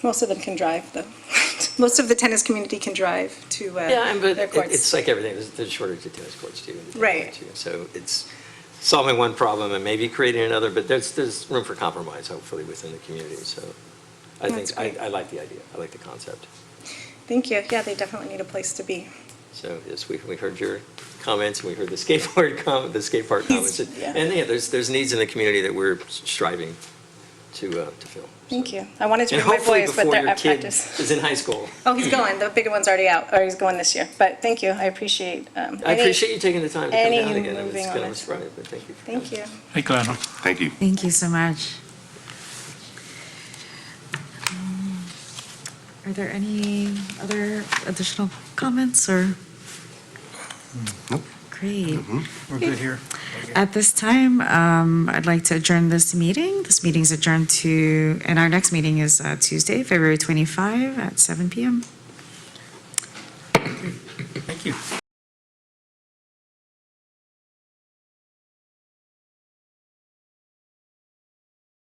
Most of them can drive, though. Most of the tennis community can drive to uh, Yeah, and but their it- courts. it's like everything, there's, there's shortage of tennis courts too. and- Right. too. So it's solving one problem and maybe creating another, but there's, there's room for compromise hopefully within the community, so. I That's think, I, great. I like the idea, I like the concept. Thank you. Yeah, they definitely need a place to be. So yes, we, we heard your comments and we heard the skateboard com, the skate park comments. And yeah. and, yeah, there's, there's needs in the community that we're striving to, uh, to fill. Thank so. you. I wanted to And bring my hopefully boys, but before they're your at kid practice. is in high school. Oh, he's going. The bigger one's already out, or he's going this year. But thank you. I appreciate. um, I any- appreciate you taking the time to come any down again. It's moving on kind of a it. surprise, but thank you. for Thank coming. you. Thank you, Andrew. Thank you. Thank you so much. Um, Are there any other additional comments or? Nope. Great. Mm-hmm. We're good here. At this time, um, I'd like to adjourn this meeting. This meeting's adjourned to, and our next meeting is uh, Tuesday, February 25 at 7 PM. Thank you.